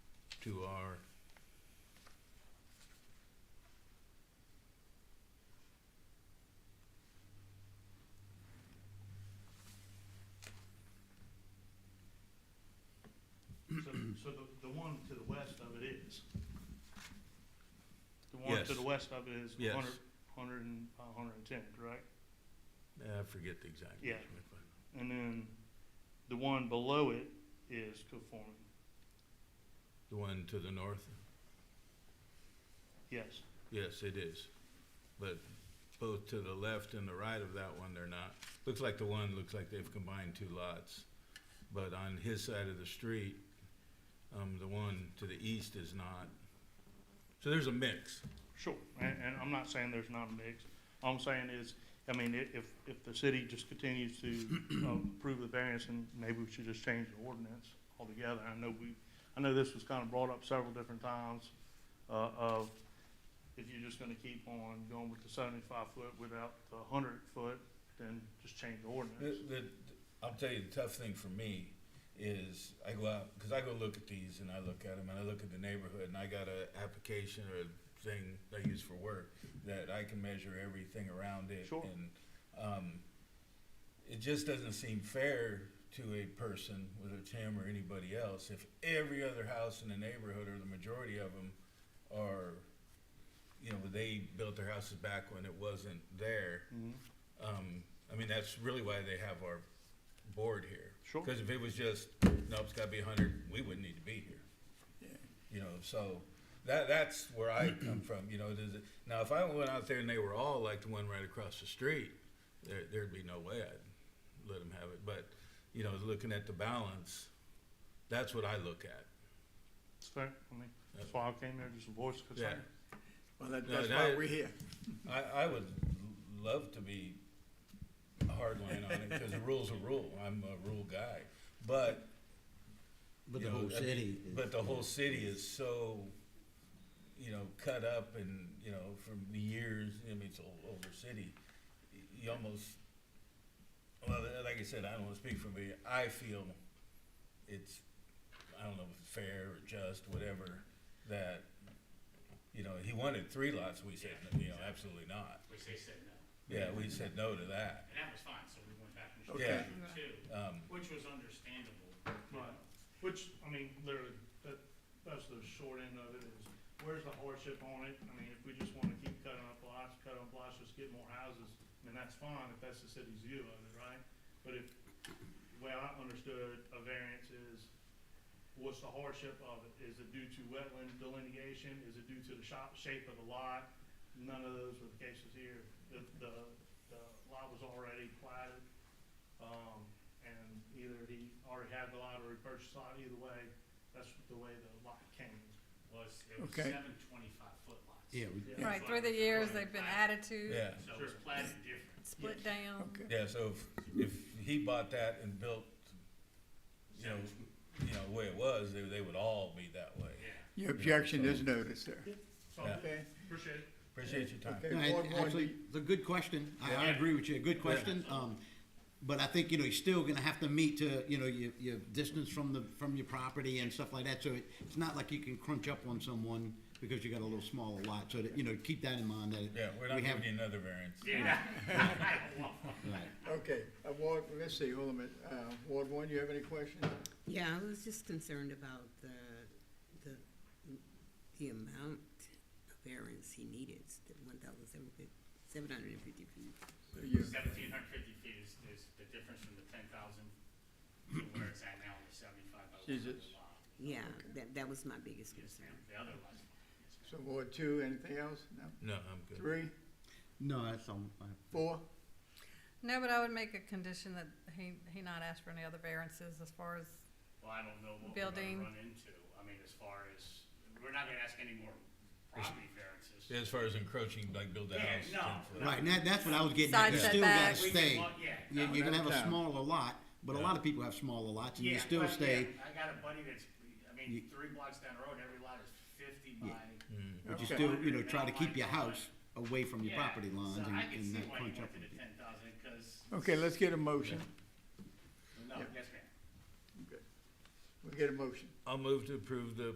to our So, so the, the one to the west of it is? The one to Yes. the west of it is Yes. 100 100 and, uh, 110, correct? I forget the exact. Yeah. measurement, but- And then the one below it is conforming, The one to the north? yes. Yes, it is. But both to the left and the right of that one, they're not. Looks like the one, looks like they've combined two lots. But on his side of the street, um, the one to the east is not. So there's a mix. Sure, and, and I'm not saying there's not a mix. All I'm saying is, I mean, i- if, if the city just continues to uh, approve the variance, and maybe we should just change the ordinance altogether. I know we, I know this was kind of brought up several different times, uh, of if you're just gonna keep on going with the seventy-five foot without the hundred foot, then just change the The, ordinance. the, I'll tell you, the tough thing for me is I go out, cause I go look at these and I look at them and I look at the neighborhood and I got a application or a thing I use for work that I can measure everything around it. Sure. And, um, it just doesn't seem fair to a person, whether it's him or anybody else, if every other house in the neighborhood or the majority of them are, you know, they built their houses back when it wasn't there. Mhm. Um, I mean, that's really why they have our board here. Sure. Because if it was just, nope, it's gotta be hundred, we wouldn't need to be here. You know, so that, that's where I come from, you know, does it, now if I went out there and they were all like the one right across the street, there, there'd be no way I'd let them have it, but, you know, looking at the balance, that's what I look at. It's fair, I mean, that's why I came there, just to voice of concern. Well, that, No, that's why that- we're here. I, I would love to be hardline on it, because a rule's a rule, I'm a rule guy, but But you the know, whole I mean, city. is- But the whole city is so, you know, cut up and, you know, from the years, I mean, it's an older city. You almost, well, like I said, I don't wanna speak for me. I feel it's, I don't know if it's fair or just, whatever, that, you know, he wanted three lots, we said, you know, absolutely not. which they said no. Yeah, we said no to that. And that was fine, so we went back and Okay. changed it too, Um, which was understandable. Right, which, I mean, literally, that, that's the short end of it is, where's the hardship on it? I mean, if we just wanna keep cutting up lots, cut up lots, just get more houses, I mean, that's fine if that's the city's view of it, right? But if, the way I understood a variance is, what's the hardship of it? Is it due to wetland delineation? Is it due to the shop, shape of the lot? None of those were the cases here. The, the, the lot was already platted. Um, and either he already had the lot or he purchased the lot, either way, that's the way the lot came. Was, it was Okay. seven twenty-five foot lots. Yeah, we- Yeah. Right, through the years, they've been added to, yeah, So it was platted different. split down. Okay. yeah, so if, if he bought that and built, you know, you know, the way it was, they, they would all be that way. Yeah. Your objection is noticed, sir. So, Yeah. Okay? appreciate it. Appreciate your time. Okay, No, and Ward one, Actually, do- it's a good question. I, I Yeah. agree with you. Good question. Um, but I think, you know, you're still gonna have to meet to, you know, your, your distance from the, from your property and stuff like that. So it, it's not like you can crunch up on someone because you got a little smaller lot. So that, you know, keep that in mind that. Yeah, we're not we have- giving you another variance. Yeah. I don't want one. Right. Okay, uh, Ward, let's see, hold on a minute. Uh, Ward one, you have any questions? Yeah, I was just concerned about the, the, the amount of variance he needed, the one thousand seven fifty, seven hundred and fifty feet. You- Seventeen hundred fifty feet is, is the difference from the ten thousand to where it's at now, the seventy-five by one hundred Jesus. lot. Yeah, that, that was my biggest Yes, concern. ma'am. The other lots. Yes, ma'am. So Ward two, anything else? No, No? I'm good. Three, No, that's all. I- four? No, but I would make a condition that he, he not ask for any other variances as far as, Well, I don't know what we're Building. gonna run into. I mean, as far as, we're not gonna ask any more property variances. Yeah, As far as encroaching, like build a Yeah, house. no, 10 foot. Right, and that, that's what I was getting Side at. You still gotta setbacks. We can stay. walk- Yeah. You, no, you're gonna have that's down. a smaller lot, but a lot of people have smaller lots and you Yeah, still but, yeah, stay. I got a buddy that's, I mean, You- three blocks down the road, every lot is fifty by. Yeah. But you Okay. still, you know, try to keep your house away from your Yeah, property lines so and, I can and see not why you crunch up. went on to the ten thousand, cause, Okay, let's get a motion. no, Yeah. yes, ma'am. We get a motion. I'll move to approve the